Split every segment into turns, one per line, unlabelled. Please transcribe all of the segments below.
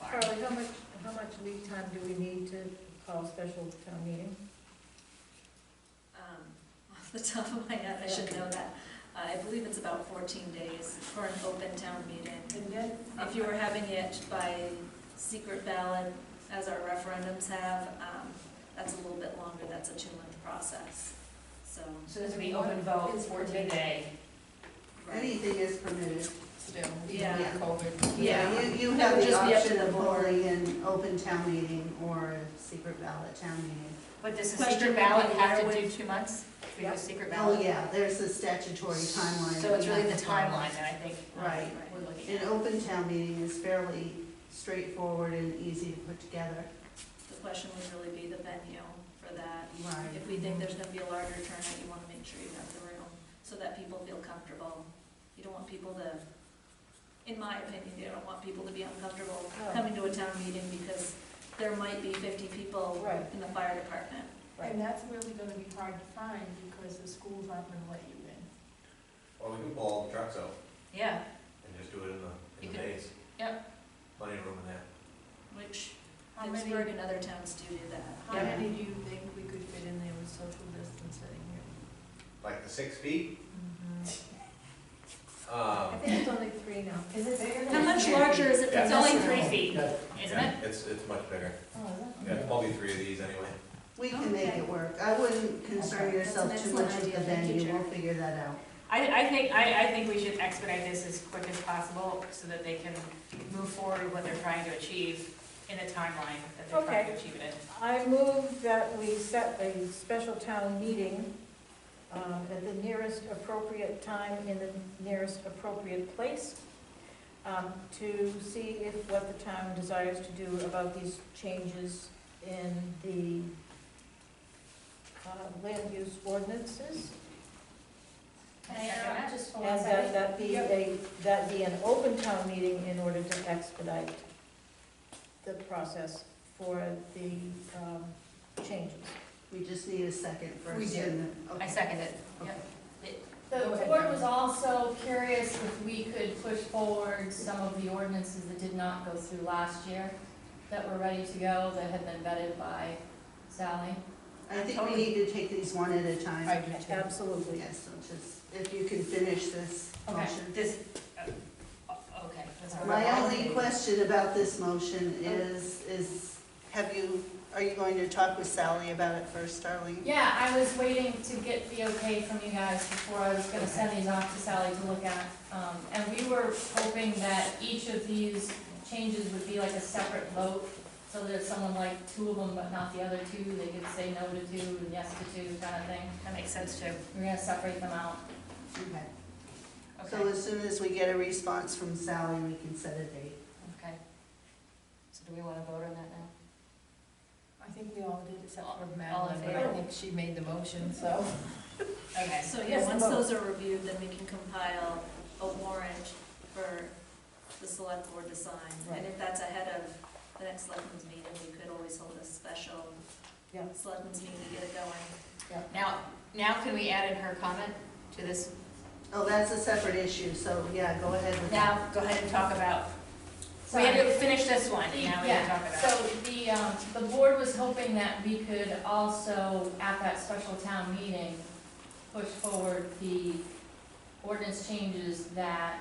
how much, how much lead time do we need to call special town meeting?
Um, Off the top of my head, I should know that. Uh, I believe it's about 14 days for an open town meeting.
And then,
If you were having it by secret ballot, as our referendums have, um, that's a little bit longer, that's a two-month process, so.
So this would be open vote,
It's
fourteen day.
right.
Anything is permitted.
Still,
Yeah.
COVID.
Yeah.
You, you have the
Just be up to
option
the
of
board.
holding an open town meeting or a secret ballot town meeting.
But does the
Question
secret ballot
would be
have
where
to do
would-
two months for your secret
Oh,
ballot?
yeah, there's a statutory timeline.
So it's
we
really the
have to follow.
timeline that I think
Right.
um, we're looking
An
at.
open town meeting is fairly straightforward and easy to put together.
The question would really be the venue for that.
Right.
If we think there's gonna be a larger turnout, you wanna make sure you have the room, so that people feel comfortable. You don't want people to, in my opinion, you don't want people to be uncomfortable
No.
coming to a town meeting, because there might be fifty people
Oh, right,
in the fire department.
right.
that's really gonna be hard to find because the schools aren't gonna let you in.
Well, we can pull all the trucks out
Yeah,
and just do it in the,
You
in the
could-
bays.
yep.
Plenty of room in there.
Which
How many,
Pittsburgh and other towns do do that.
how
Yeah.
many do you think we could fit in there with social distancing here?
Like the six feet, um,
I think it's only three now. Is it bigger
How much larger is it?
Yeah.
It's only three feet, isn't it?
yeah, it's, it's much bigger.
Oh,
Yeah, it's probably three of these anyway.
We can make
Okay.
it work. I wouldn't concern
Okay, that's an
yourself too
excellent
much with
idea.
the
Thank you,
venue. We'll
Chair.
figure that out.
I, I think, I, I think we should expedite this as quick as possible so that they can move forward with what they're trying to achieve in the timeline that they're trying to
Okay.
achieve it in.
I move that we set a special town meeting um, at the nearest appropriate time in the nearest appropriate place um, to see if what the town desires to do about these changes in the uh, land use ordinances.
Second.
just
Oh,
for
And that that be a, that be an open town meeting in order to expedite the process for the um, changes.
We just need a second first.
We do.
and then-
I second it,
okay.
yep.
The
Go ahead.
board was also curious if we could push forward some of the ordinances that did not go through last year, that were ready to go, that had been vetted by Sally.
I think we need to take these one at a time.
I do too.
Absolutely.
Yes, so just, if you can finish this
Okay.
motion.
This, uh, okay. that's all
My
right.
only question about this motion is, is, have you, are you going to talk with Sally about it first, Darlene?
Yeah, I was waiting to get the okay from you guys before I was gonna send these off to Sally to look at. Um, and we were hoping that each of these changes would be like a separate vote, so that if someone liked two of them but not the other two, they could say no to two and yes to two kind of thing.
That makes sense too.
We're gonna separate them out.
Okay. So
Okay,
as soon as we get a response from Sally, we can set a date.
okay. So do we want to vote on that now?
I think we all did except
All-
for
all
Madeline,
in
but I
favor?
think she made the motion, so.
Okay,
So,
Yes,
yeah, once
vote.
those are reviewed, then we can compile a warrant for the select board to sign.
Right.
And if that's ahead of the next selectmen's meeting, we could always hold a special
Yeah.
selectmen's meeting to get it going.
now, now can we add in her comment to this?
Oh, that's a separate issue, so yeah, go ahead with that.
Now, go ahead and talk about, we
Sorry.
had to finish this one, and now we can talk
Yeah,
about.
so the, um, the board was hoping that we could also, at that special town meeting, push forward the ordinance changes that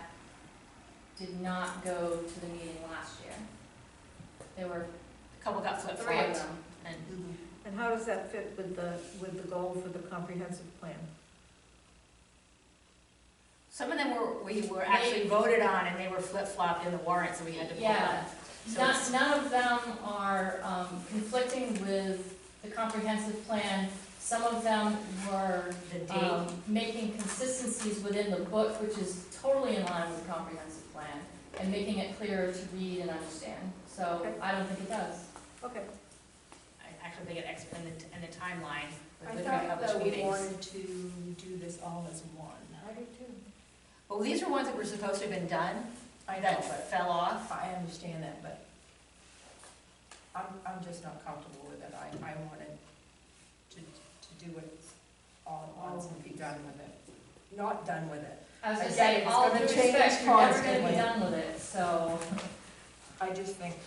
did not go to the meeting last year. There were
A couple got flip
three of
flopped.
them.
And
Mhm.
And how does that fit with the, with the goal for the comprehensive plan?
some of them were, we were actually voted on, and they were flip flopped in the warrant, so we had to pull
Yeah.
them. So it's-
None, none of them are um, conflicting with the comprehensive plan. Some of them were
The date,
um, making consistencies within the book, which is totally in line with the comprehensive plan, and making it clearer to read and understand. So
Okay.
I don't think it does.
Okay,
I actually think it ex, and the, and the timeline
I
with the
thought
published
that we
meetings.
wanted to do this all as one.
I do too.
Well, these are ones that were supposed to have been done,
I know,
that
but
fell off.
I understand that, but I'm, I'm just not comfortable with it. I, I wanted to, to do it all at once and be done with it. Not done with it.
I was
I
gonna
get it,
say,
it's
all due
gonna change
respect, you're never gonna
constantly.
be done with it, so.
I just think